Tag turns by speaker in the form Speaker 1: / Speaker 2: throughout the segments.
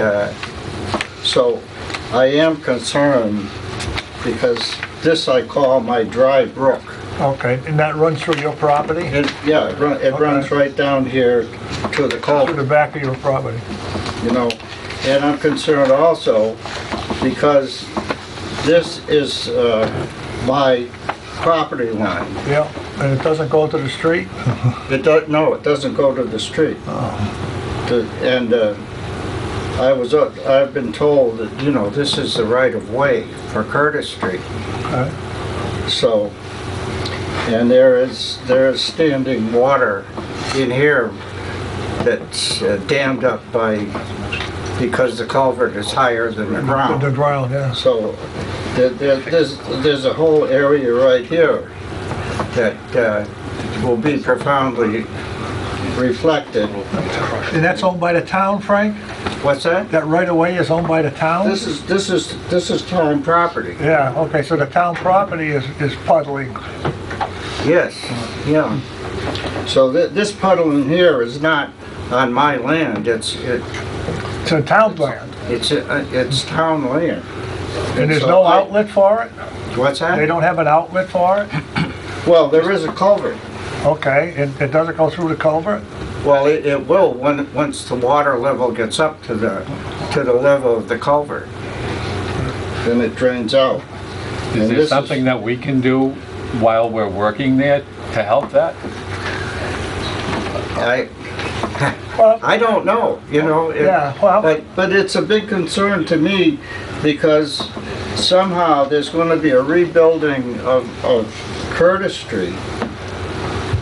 Speaker 1: uh, so I am concerned because this I call my dry brook.
Speaker 2: Okay, and that runs through your property?
Speaker 1: It, yeah, it run- it runs right down here to the
Speaker 2: Through
Speaker 1: culvert.
Speaker 2: the back of your property?
Speaker 1: you know. And I'm concerned also because this is uh, my property line.
Speaker 2: Yeah, and it doesn't go to the street?
Speaker 1: It does, no, it doesn't go to the street.
Speaker 2: Oh.
Speaker 1: The- And uh, I was, uh, I've been told that, you know, this is the right of way for Curtis Street.
Speaker 2: Okay.
Speaker 1: So, and there is, there is standing water in here that's uh, dammed up by, because the culvert is higher than the ground.
Speaker 2: The ground, yes.
Speaker 1: So there- there- there's, there's a whole area right here that uh, will be profoundly reflected.
Speaker 2: And that's owned by the town, Frank?
Speaker 1: What's that?
Speaker 2: That right-of-way is owned by the town?
Speaker 1: This is, this is, this is town property.
Speaker 2: Yeah, okay, so the town property is, is puddling.
Speaker 1: Yes, yeah. So thi- this puddle in here is not on my land, it's, it-
Speaker 2: It's a town land.
Speaker 1: it's, uh, it's town land.
Speaker 2: And there's
Speaker 1: so
Speaker 2: no
Speaker 1: I-
Speaker 2: outlet for it?
Speaker 1: What's
Speaker 2: They
Speaker 1: that?
Speaker 2: don't have an outlet for it?
Speaker 1: Well, there is a culvert.
Speaker 2: Okay, and it doesn't go through the culvert?
Speaker 1: Well, it it will, when, once the water level gets up to the, to the level of the culvert. Then it drains out.
Speaker 3: Is there something that we can do while we're working there to help that?
Speaker 1: I,
Speaker 2: Well,
Speaker 1: I don't know, you know? it-
Speaker 2: Yeah, well-
Speaker 1: But, but it's a big concern to me because somehow there's gonna be a rebuilding of, of Curtis Street.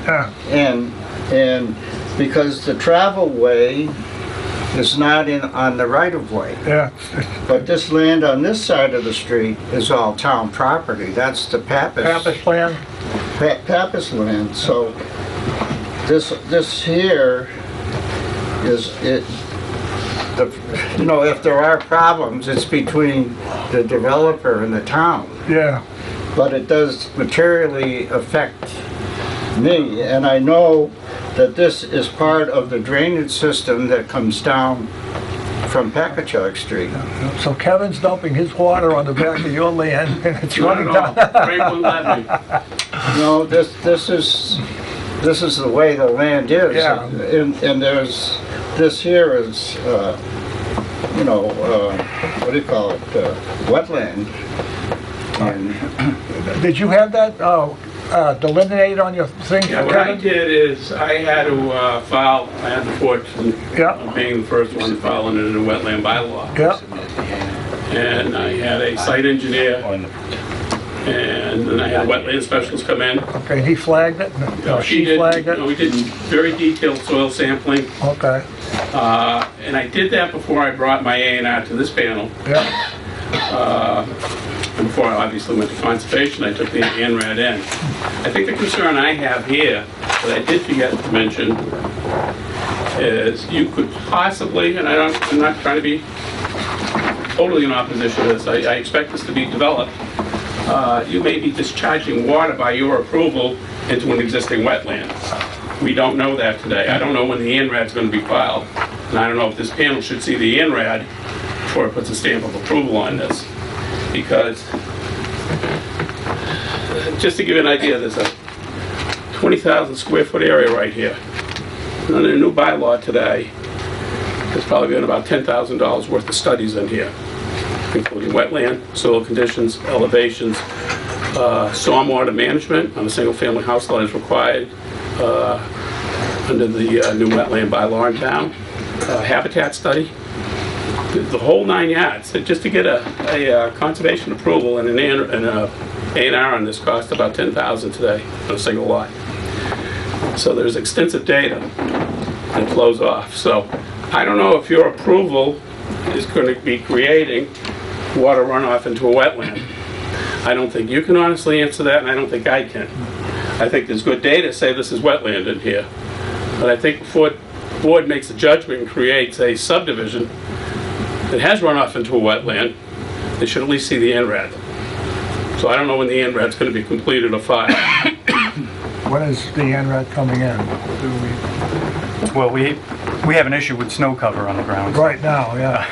Speaker 2: yeah.
Speaker 1: And, and because the travel way is not in, on the right of way.
Speaker 2: Yeah,
Speaker 1: But this land on this side of the street is all town property. That's the Pappas.
Speaker 2: Pappas land,
Speaker 1: Pa- Pappas land, so this, this here is, it, the, you know, if there are problems, it's between the developer and the town.
Speaker 2: yeah.
Speaker 1: But it does materially affect me, and I know that this is part of the drainage system that comes down from Packagug Street.
Speaker 2: So Kevin's dumping his water on the back of your land, and it's
Speaker 4: Not at
Speaker 2: running
Speaker 4: all.
Speaker 2: down.
Speaker 4: Frank wouldn't let me.
Speaker 1: No, this, this is, this is the way the land is.
Speaker 2: Yeah.
Speaker 1: And, and there's, this here is, uh, you know, uh, what do you call it, uh, wetland. And
Speaker 2: Did you have that uh, uh, delineated on your thing,
Speaker 4: Yeah, what I
Speaker 2: Kevin?
Speaker 4: did is, I had to uh, file, I had the fortune
Speaker 2: Yeah,
Speaker 4: of being the first one filing it in the wetland bylaw.
Speaker 2: yeah,
Speaker 4: And I had a site engineer, and then I had wetland specialists come in.
Speaker 2: okay, he flagged it,
Speaker 4: Uh,
Speaker 2: or she
Speaker 4: did-
Speaker 2: flagged
Speaker 4: no, We
Speaker 2: it?
Speaker 4: did very detailed soil sampling,
Speaker 2: Okay,
Speaker 4: uh, and I did that before I brought my A and R to this panel.
Speaker 2: yeah,
Speaker 4: And before I obviously went to conservation, I took the NRAD in. I think the concern I have here, that I did forget to mention, is you could possibly, and I don't, I'm not trying to be totally in opposition to this, I, I expect this to be developed, uh, you may be discharging water by your approval into an existing wetland. We don't know that today. I don't know when the NRAD's gonna be filed, and I don't know if this panel should see the NRAD before it puts a stamp of approval on this because, just to give you an idea, there's a 20,000 square foot area right here. And Under the new bylaw today, there's probably been about $10,000 worth of studies in here, including wetland, soil conditions, elevations, uh, stormwater management on a single-family house lot is required uh, under the uh, new wetland bylaw in town, uh, habitat study, the whole nine yards, So just to get a, a uh, conservation approval and an, A- and a A and R on this cost about ten thousand today on a single lot. So there's extensive data that flows off, so I don't know if your approval is gonna be creating water runoff into a wetland. I don't think you can honestly answer that, and I don't think I can. I think there's good data to say this is wetland in here, but I think before board makes a judgment and creates a subdivision, it has run off into a wetland, they should at least see the NRAD. So I don't know when the NRAD's gonna be completed or filed.
Speaker 2: when is the NRAD coming in?
Speaker 5: Well, we, we have an issue with snow cover on the ground.
Speaker 2: Right now, yeah.